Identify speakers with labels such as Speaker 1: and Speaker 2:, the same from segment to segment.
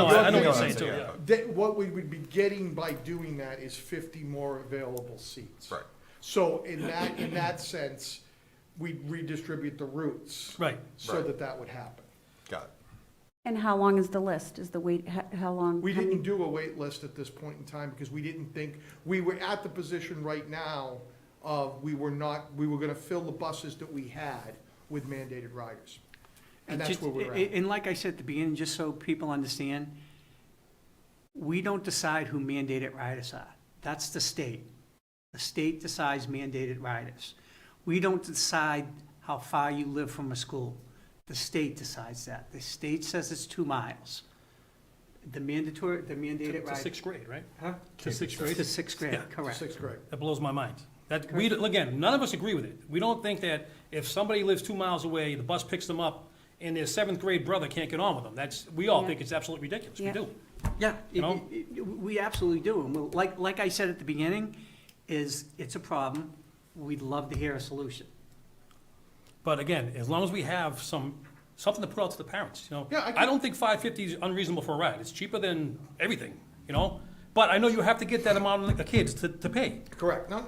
Speaker 1: I'm saying too,
Speaker 2: saying,
Speaker 1: yeah.
Speaker 3: That, what we would be getting by doing that is fifty more available seats.
Speaker 2: Right.
Speaker 3: So in that, in that sense, we'd redistribute the routes.
Speaker 1: Right.
Speaker 3: So
Speaker 2: Right.
Speaker 3: that that would happen.
Speaker 2: Got it.
Speaker 4: And how long is the list? Is the wait, how, how long?
Speaker 3: We
Speaker 4: how many-
Speaker 3: didn't do a wait list at this point in time because we didn't think, we were at the position right now of, we were not, we were gonna fill the buses that we had with mandated riders. And
Speaker 5: It
Speaker 3: that's
Speaker 5: just-
Speaker 3: where we're
Speaker 5: a- a-
Speaker 3: at.
Speaker 5: And like I said at the beginning, just so people understand, we don't decide who mandated riders are. That's the state. The state decides mandated riders. We don't decide how far you live from a school. The state decides that. The state says it's two miles. The mandatory, the
Speaker 1: To
Speaker 5: mandated
Speaker 1: to
Speaker 5: rider.
Speaker 1: sixth grade, right?
Speaker 5: Huh?
Speaker 1: To sixth grade?
Speaker 5: To sixth grade,
Speaker 1: Yeah.
Speaker 5: correct.
Speaker 3: Sixth grade.
Speaker 1: That blows my mind. That, we, again, none of us agree with it. We don't think that if somebody lives two miles away, the bus picks them up, and their seventh grade brother can't get on with them. That's, we all
Speaker 4: Yeah.
Speaker 1: think it's absolutely ridiculous. We
Speaker 4: Yeah.
Speaker 1: do.
Speaker 5: Yeah,
Speaker 1: You
Speaker 5: it-
Speaker 1: know?
Speaker 5: it- it- we absolutely do, and we'll- like, like I said at the beginning, is, it's a problem, we'd love to hear a solution.
Speaker 1: But again, as long as we have some, something to put out to the parents, you know?
Speaker 3: Yeah, I
Speaker 1: I don't think five fifty is unreasonable for a ride. It's cheaper than everything, you know? But I know you have to get that amount of the kids to, to pay.
Speaker 3: Correct. No,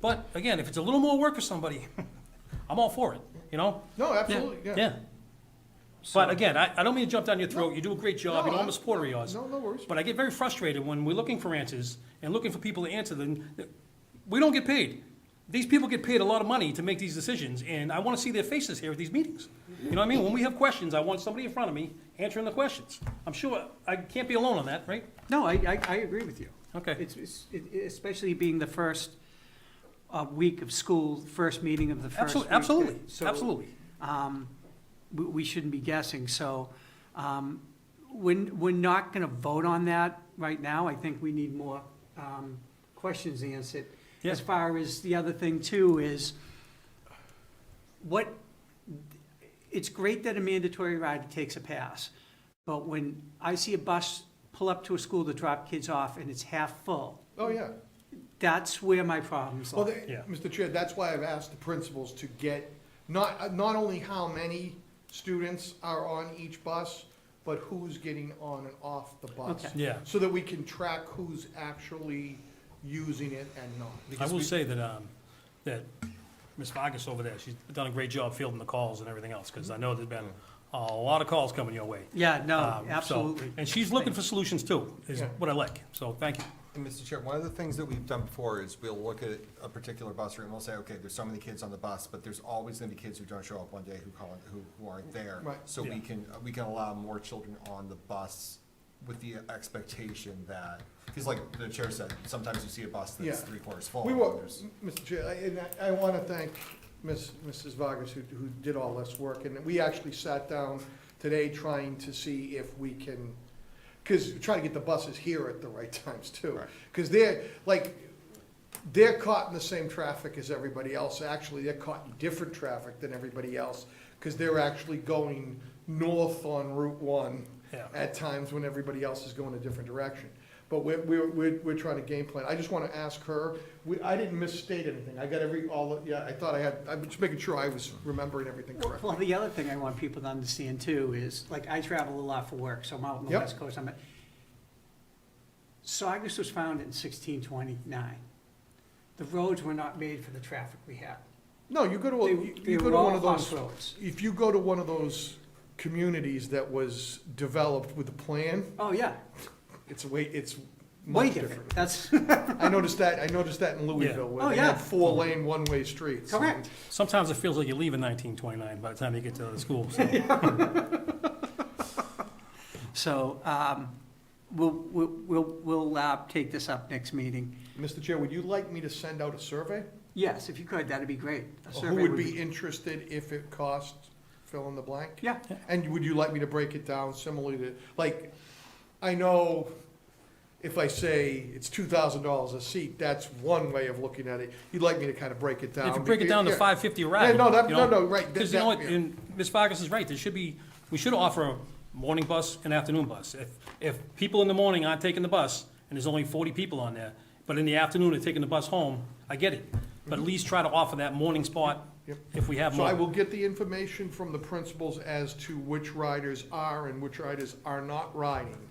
Speaker 1: But again, if it's a little more work for somebody, I'm all for it, you know?
Speaker 3: no, absolutely, yeah.
Speaker 1: Yeah. But again, I, I don't mean to jump down your throat. You do a great job. You
Speaker 3: No,
Speaker 1: know,
Speaker 3: I-
Speaker 1: I'm a supporter of yours.
Speaker 3: No, no worries.
Speaker 1: But I get very frustrated when we're looking for answers and looking for people to answer them. We don't get paid. These people get paid a lot of money to make these decisions, and I want to see their faces here at these meetings. You know what I mean? When we have questions, I want somebody in front of me answering the questions. I'm sure I can't be alone on that, right?
Speaker 5: No, I, I, I agree with you.
Speaker 1: Okay.
Speaker 5: It's, it's, it- especially being the first, uh, week of school, first meeting of the first
Speaker 1: Absolutely,
Speaker 5: week.
Speaker 1: absolutely,
Speaker 5: So,
Speaker 1: absolutely.
Speaker 5: um, we, we shouldn't be guessing, so, um, we're, we're not gonna vote on that right now, I think we need more, um, questions answered.
Speaker 1: Yeah.
Speaker 5: As far as the other thing too is, what, it's great that a mandatory rider takes a pass, but when I see a bus pull up to a school to drop kids off and it's half full,
Speaker 3: Oh, yeah.
Speaker 5: that's where my problems
Speaker 3: Well,
Speaker 5: lie.
Speaker 3: they-
Speaker 1: Yeah.
Speaker 3: Mr. Chair, that's why I've asked the principals to get, not, uh, not only how many students are on each bus, but who's getting on and off the bus.
Speaker 5: Okay.
Speaker 1: Yeah.
Speaker 3: So that we can track who's actually using it and not.
Speaker 1: I will say that, um, that Ms. Vargas over there, she's done a great job fielding the calls and everything else, because I know there's been a lot of calls coming your way.
Speaker 5: Yeah, no,
Speaker 1: Um, so-
Speaker 5: absolutely.
Speaker 1: And she's looking for solutions too, is
Speaker 3: Yeah.
Speaker 1: what I like, so thank you.
Speaker 2: And Mr. Chair, one of the things that we've done before is we'll look at a particular bus route and we'll say, okay, there's so many kids on the bus, but there's always gonna be kids who don't show up one day who call, who, who aren't there.
Speaker 3: Right.
Speaker 2: So
Speaker 1: Yeah.
Speaker 2: we can, we can allow more children on the bus with the expectation that, because like the chair said, sometimes you see a bus that's
Speaker 3: Yeah.
Speaker 2: three quarters full.
Speaker 3: We
Speaker 2: and
Speaker 3: will,
Speaker 2: there's-
Speaker 3: Mr. Chair, I- and I- I want to thank Ms. Mrs. Vargas, who, who did all this work, and we actually sat down today trying to see if we can, because, try to get the buses here at the right times, too.
Speaker 2: Right.
Speaker 3: Because they're, like, they're caught in the same traffic as everybody else, actually, they're caught in different traffic than everybody else, because they're actually going north on Route One
Speaker 1: Yeah.
Speaker 3: at times when everybody else is going a different direction. But we're, we're, we're, we're trying to game plan. I just want to ask her, we, I didn't misstate anything. I got every, all, yeah, I thought I had, I'm just making sure I was remembering everything correctly.
Speaker 5: Well, the other thing I want people to understand too is, like, I travel a lot for work, so I'm out on the
Speaker 3: Yep.
Speaker 5: west coast, I'm at. Saugus was founded in sixteen twenty-nine. The roads were not made for the traffic we have.
Speaker 3: No, you go to, a-
Speaker 5: They
Speaker 3: you
Speaker 5: they
Speaker 3: you go
Speaker 5: were
Speaker 3: to one
Speaker 5: all
Speaker 3: of
Speaker 5: bus
Speaker 3: those,
Speaker 5: roads.
Speaker 3: if you go to one of those communities that was developed with a plan,
Speaker 5: Oh, yeah,
Speaker 3: it's way, it's
Speaker 5: way
Speaker 3: much
Speaker 5: different,
Speaker 3: different.
Speaker 5: that's
Speaker 3: I noticed that, I noticed that in Louisville,
Speaker 5: Oh,
Speaker 3: where they
Speaker 5: yeah.
Speaker 3: had four-lane, one-way streets.
Speaker 5: correct.
Speaker 1: Sometimes it feels like you leave in nineteen twenty-nine by the time you get to the school, so.
Speaker 5: So, um, we'll, we'll, we'll, we'll, uh, take this up next meeting.
Speaker 3: Mr. Chair, would you like me to send out a survey?
Speaker 5: Yes, if you could, that'd be great. A
Speaker 3: Who
Speaker 5: survey
Speaker 3: would be interested if it cost fill in the blank?
Speaker 5: Yeah,
Speaker 3: And would you like me to break it down similarly to, like, I know if I say it's two thousand dollars a seat, that's one way of looking at it. You'd like me to kind of break it down?
Speaker 1: If you break it down to
Speaker 3: Yeah.
Speaker 1: five fifty a ride.
Speaker 3: Yeah, no, that-
Speaker 1: you know,
Speaker 3: no, no, right, that-
Speaker 1: Because you know
Speaker 3: that-
Speaker 1: what,
Speaker 3: yeah.
Speaker 1: and Ms. Vargas is right, there should be, we should offer a morning bus and afternoon bus. If, if people in the morning aren't taking the bus, and there's only forty people on there, but in the afternoon they're taking the bus home, I get it. But at least try to offer that morning spot
Speaker 3: Yep.
Speaker 1: if we have
Speaker 3: So I
Speaker 1: more.
Speaker 3: will get the information from the principals as to which riders are and which riders are not riding.